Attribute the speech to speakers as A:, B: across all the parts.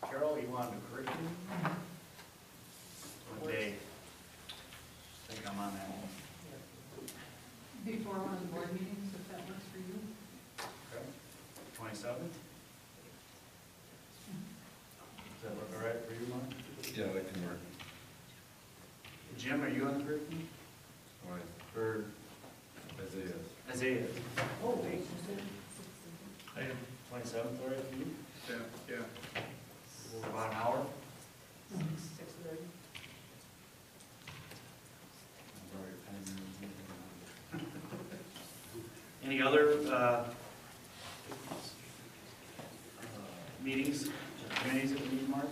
A: what he wanted to create. One day, I think I'm on that one.
B: Before one of the board meetings, if that works for you.
A: Twenty-seventh? Does that look all right for you, Mark?
C: Yeah, that can work.
A: Jim, are you on the group?
C: All right,
A: Or
C: Isaiah.
A: Isaiah? Oh,
D: I am,
A: Twenty-seventh, all right for you?
D: yeah, yeah.
A: About an hour?
B: Six thirty.
A: Any other uh, meetings, committees that we need, Mark?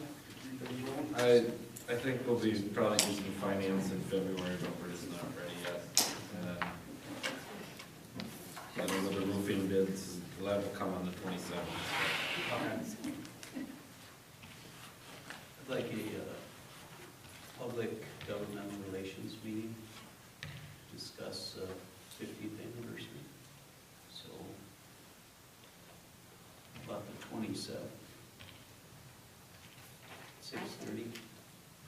C: I, I think we'll be probably using finance in February, but we're just not ready yet. Uh, I don't know the roofing bids, that will come on the twenty-seventh.
A: Okay.
E: I'd like a uh, public governmental relations meeting to discuss fiftieth anniversary. So about the twenty-seventh. Six thirty.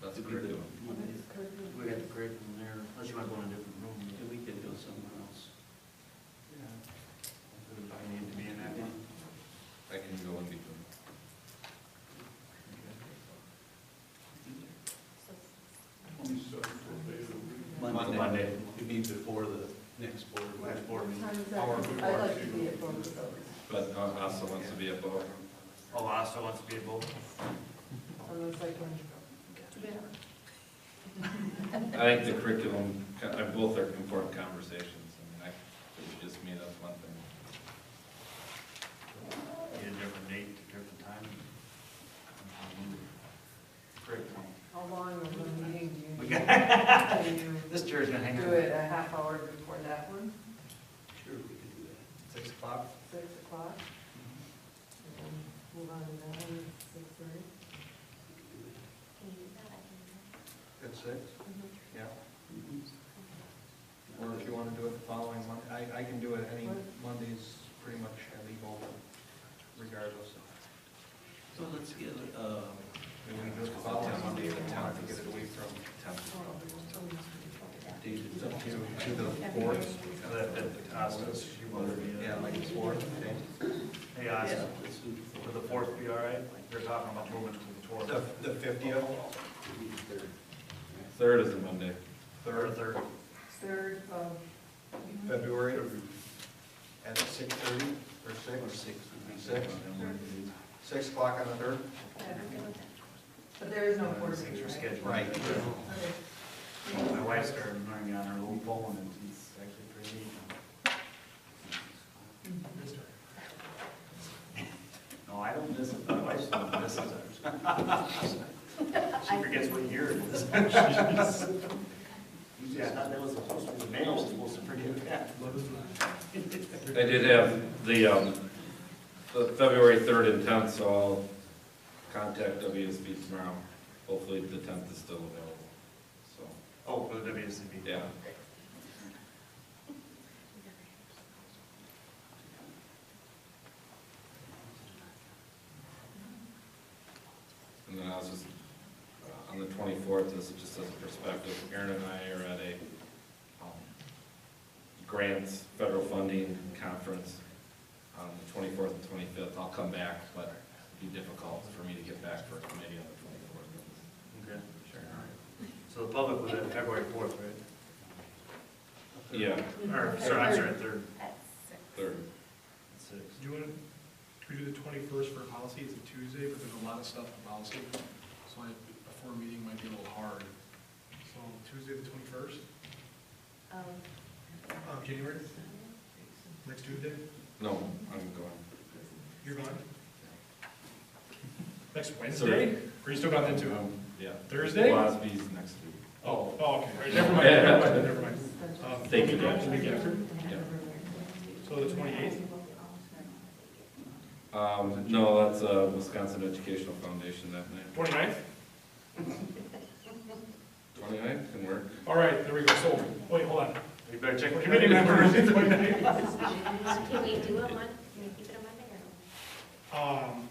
C: That's curriculum.
A: We got the great one there, unless you want to go in a different room.
E: we could go somewhere else.
A: I need to be in that one.
C: I can go in between.
E: Monday.
A: Monday.
E: It'd be before the next board.
A: Last board meeting.
B: I'd like to be at both of those.
C: But uh, also wants to be at both.
A: Oh, Lasso wants to be at both?
B: So it's like when.
C: I think the curriculum, co- uh, both are important conversations. I mean, I, it was just me, that's one thing.
A: Need a different date, different time? Great one.
B: How long of a meeting do
A: We
B: you?
A: got-
B: Can you
A: This chair's gonna hang
B: do
A: on.
B: it a half hour before that one,
E: Sure, we could do that.
A: Six o'clock?
B: six o'clock? And then move on to that one, six thirty?
E: We could do that.
A: At six? Yeah.
E: Mhm.
A: Or if you want to do it the following Monday, I, I can do it any
B: What?
A: Mondays, pretty much, I leave open regardless.
E: So let's get, uh,
A: We can do it the following Monday, the tenth, to get it away from.
E: David's up here.
A: To the fourth? Yeah, like the fourth, okay. Hey,
E: Yeah,
A: Austin,
E: let's do the
A: would the fourth be all right? You're talking about moving to the fourth.
F: The fiftieth,
C: Third is a Monday.
A: Third, third.
B: Third of.
F: February, at six thirty or
E: Or
F: six,
E: six would be
F: Six.
E: good.
F: six o'clock on the third?
B: But there is no quarter
A: Things
B: meeting,
A: are scheduled.
B: right?
F: Right.
B: Okay.
A: My wife started learning on her little phone and it's actually pretty neat. No, I don't miss it. My wife doesn't miss it. She forgets what year it is. Yeah, I thought that was supposed to be, the mail was supposed to forgive that.
C: I did have the, um, the February third and tenth, so I'll contact WSB tomorrow. Hopefully the tenth is still available, so,
A: Oh, for the WSCB.
C: yeah. And then I was just, uh, on the twenty-fourth, this is just as a perspective, Aaron and I are at a, um, grants, federal funding conference on the twenty-fourth and twenty-fifth. I'll come back, but it'd be difficult for me to get back for a committee on the twenty-fourth.
A: Okay. So the public was at February fourth, right?
C: Yeah,
A: Or, sorry, I'm sorry, third.
C: third.
A: Six.
D: Do you want to, we do the twenty-first for policy, it's a Tuesday, but there's a lot of stuff in policy, so I, a four meeting might be a little hard. So Tuesday the twenty-first,
B: Um,
D: of January, next Tuesday,
C: No, I'm going.
D: you're gone? Next Wednesday? Are you still gone then too?
C: Um, Yeah.
D: Thursday? Oh,
C: Wasby's next week.
D: oh, okay, All right, never mind, never mind, never mind. Um,
C: Thank you,
D: the
C: Dan.
D: week after? So the twenty-eighth?
C: Um, no, that's, uh, Wisconsin Educational Foundation that night.
D: 29th.
C: Twenty-ninth can work.
D: All right, there we go, so, wait, hold on.
A: You better check.
D: Committee members, 29th.
G: Can we do a Mon, can we keep it a Monday or no?
D: Um,